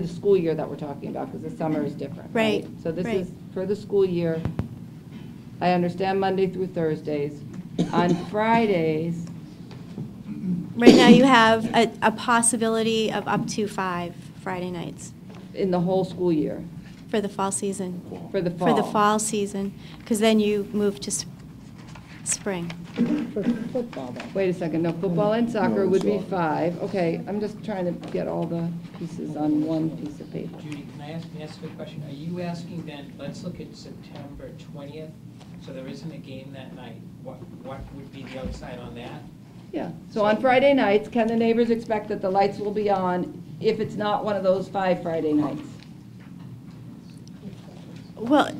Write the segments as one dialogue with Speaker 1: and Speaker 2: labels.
Speaker 1: the school year that we're talking about, because the summer is different.
Speaker 2: Right,
Speaker 1: So this
Speaker 2: right.
Speaker 1: is for the school year. I understand Monday through Thursdays. On Fridays,
Speaker 2: Right now, you have a, a possibility of up to five Friday nights
Speaker 1: in the whole school year,
Speaker 2: for the fall season.
Speaker 1: for the fall.
Speaker 2: For the fall season, because then you move to s- spring.
Speaker 1: Wait a second, no, football and soccer
Speaker 3: No,
Speaker 1: would be
Speaker 3: soccer.
Speaker 1: five. Okay, I'm just trying to get all the pieces on one piece of paper.
Speaker 4: Judy, can I ask, may I ask a question? Are you asking then, let's look at September 20th, so there isn't a game that night. What, what would be the outside on that?
Speaker 1: Yeah, so on Friday nights, can the neighbors expect that the lights will be on if it's not one of those five Friday nights?
Speaker 2: Well,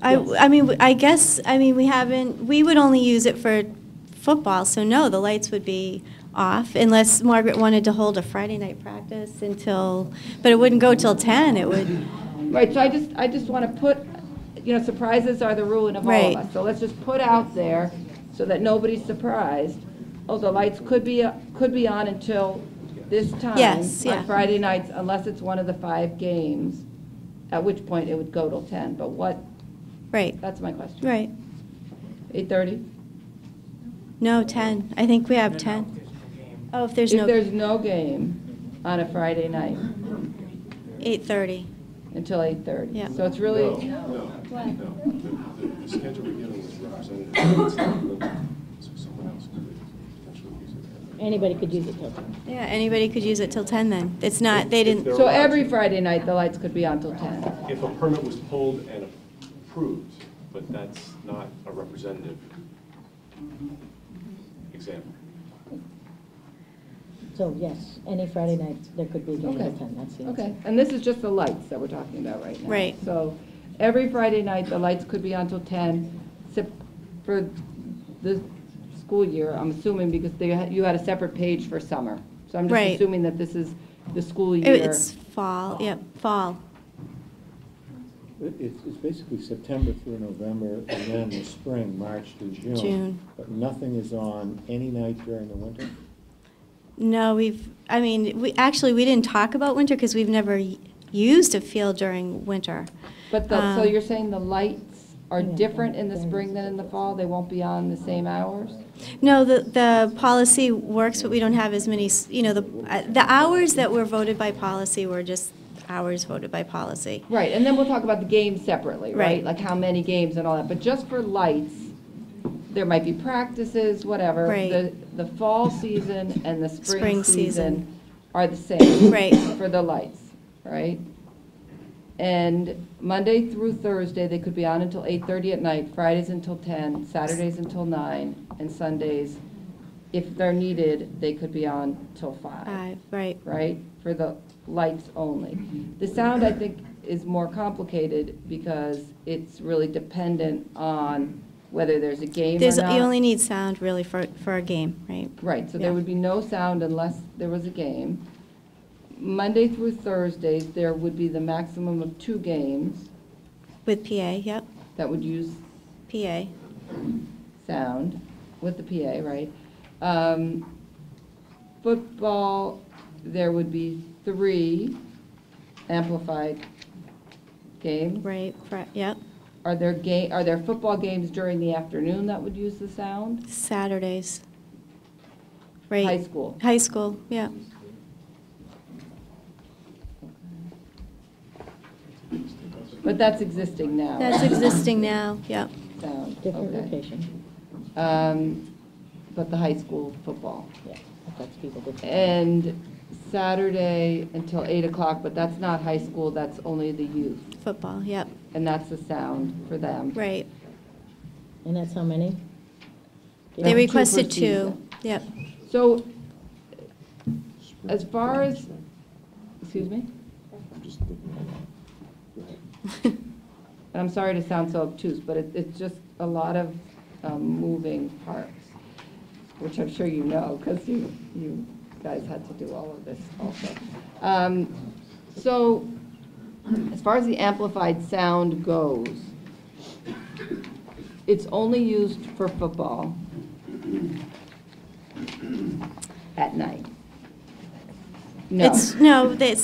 Speaker 2: I, I mean, I guess, I mean, we haven't, we would only use it for football, so no, the lights would be off unless Margaret wanted to hold a Friday night practice until, but it wouldn't go till 10, it would,
Speaker 1: Right, so I just, I just want to put, you know, surprises are the ruin of all
Speaker 2: Right.
Speaker 1: of us. So let's just put out there so that nobody's surprised. Oh, the lights could be, could be on until this time.
Speaker 2: Yes, yeah.
Speaker 1: On Friday nights, unless it's one of the five games, at which point it would go till 10. But what,
Speaker 2: right,
Speaker 1: that's my question.
Speaker 2: right.
Speaker 1: 8:30?
Speaker 2: No, 10, I think we have
Speaker 4: No, no,
Speaker 2: 10.
Speaker 4: there's no game.
Speaker 2: Oh, if there's
Speaker 1: If
Speaker 2: no,
Speaker 1: there's no game on a Friday night
Speaker 2: 8:30.
Speaker 1: until 8:30.
Speaker 2: Yeah.
Speaker 1: So it's really,
Speaker 3: No, no, no. The- the- The schedule we're getting is representative. It's not limited. So someone else could potentially use it.
Speaker 5: Anybody could use it, though.
Speaker 2: Yeah, anybody could use it till 10 then. It's not, they didn't,
Speaker 1: so every Friday night, the lights could be on till 10.
Speaker 3: If a permit was pulled and approved, but that's not a representative example.
Speaker 5: So, yes, any Friday night, there could be a game
Speaker 1: Okay.
Speaker 5: at 10, that's the answer.
Speaker 1: Okay, and this is just the lights that we're talking about right now.
Speaker 2: Right.
Speaker 1: So every Friday night, the lights could be on till 10, sep- for the school year, I'm assuming, because they, had- you had a separate page for summer. So I'm just
Speaker 2: Right.
Speaker 1: assuming that this is the school year.
Speaker 2: it's fall, yep, fall.
Speaker 6: It- It's, it's basically September through November, and then the spring, March through June.
Speaker 2: June.
Speaker 6: But nothing is on any night during the winter?
Speaker 2: No, we've, I mean, we, actually, we didn't talk about winter because we've never y- used a field during winter.
Speaker 1: But the, so
Speaker 2: um,
Speaker 1: you're saying the lights are
Speaker 5: Yeah,
Speaker 1: different in the
Speaker 5: they're-
Speaker 1: spring than in the fall? They won't be on the same hours?
Speaker 2: No, the, the policy works, but we don't have as many, s- you know, the, uh, the hours that were voted by policy were just hours voted by policy.
Speaker 1: Right, and then we'll talk about the games separately, right?
Speaker 2: Right.
Speaker 1: Like how many games and all that, but just for lights, there might be practices, whatever.
Speaker 2: Right.
Speaker 1: The, the fall season and the spring
Speaker 2: Spring season.
Speaker 1: season are the same.
Speaker 2: Right.
Speaker 1: For the lights, right? And Monday through Thursday, they could be on until 8:30 at night, Fridays until 10, Saturdays until 9, and Sundays, if they're needed, they could be on till 5
Speaker 2: Five, Uh, right,
Speaker 1: right, for the lights only. The sound, I think, is more complicated because it's really dependent on whether there's a game or
Speaker 2: There's, you only
Speaker 1: not.
Speaker 2: need sound really for, for a game, right?
Speaker 1: Right, so there
Speaker 2: yeah.
Speaker 1: would be no sound unless there was a game. Monday through Thursdays, there would be the maximum of two games
Speaker 2: With PA, yep,
Speaker 1: that would use
Speaker 2: PA.
Speaker 1: sound with the PA, right? Um, Football, there would be three amplified games.
Speaker 2: Right, fri- yep.
Speaker 1: Are there ga, are there football games during the afternoon that would use the sound?
Speaker 2: Saturdays.
Speaker 1: High
Speaker 2: Right.
Speaker 1: school.
Speaker 2: High school, yeah.
Speaker 1: But that's existing now.
Speaker 2: That's existing now, yeah.
Speaker 1: Sound,
Speaker 5: Different
Speaker 1: okay.
Speaker 5: location,
Speaker 1: Um, But the high school football.
Speaker 5: yeah, affects people differently.
Speaker 1: And Saturday until 8 o'clock, but that's not high school, that's only the youth.
Speaker 2: Football, yep,
Speaker 1: And that's the sound for them.
Speaker 2: right.
Speaker 5: And that's how many?
Speaker 2: They
Speaker 1: Two per
Speaker 2: requested two,
Speaker 1: season.
Speaker 2: yep.
Speaker 1: So as far as, excuse me?
Speaker 3: I'm just looking. Go ahead.
Speaker 1: and I'm sorry to sound so obtuse, but it, it's just a lot of um, moving parts, which I'm sure you know, because you, you guys had to do all of this also. Um, So, as far as the amplified sound goes, it's only used for football at night. No.
Speaker 2: It's, no, it's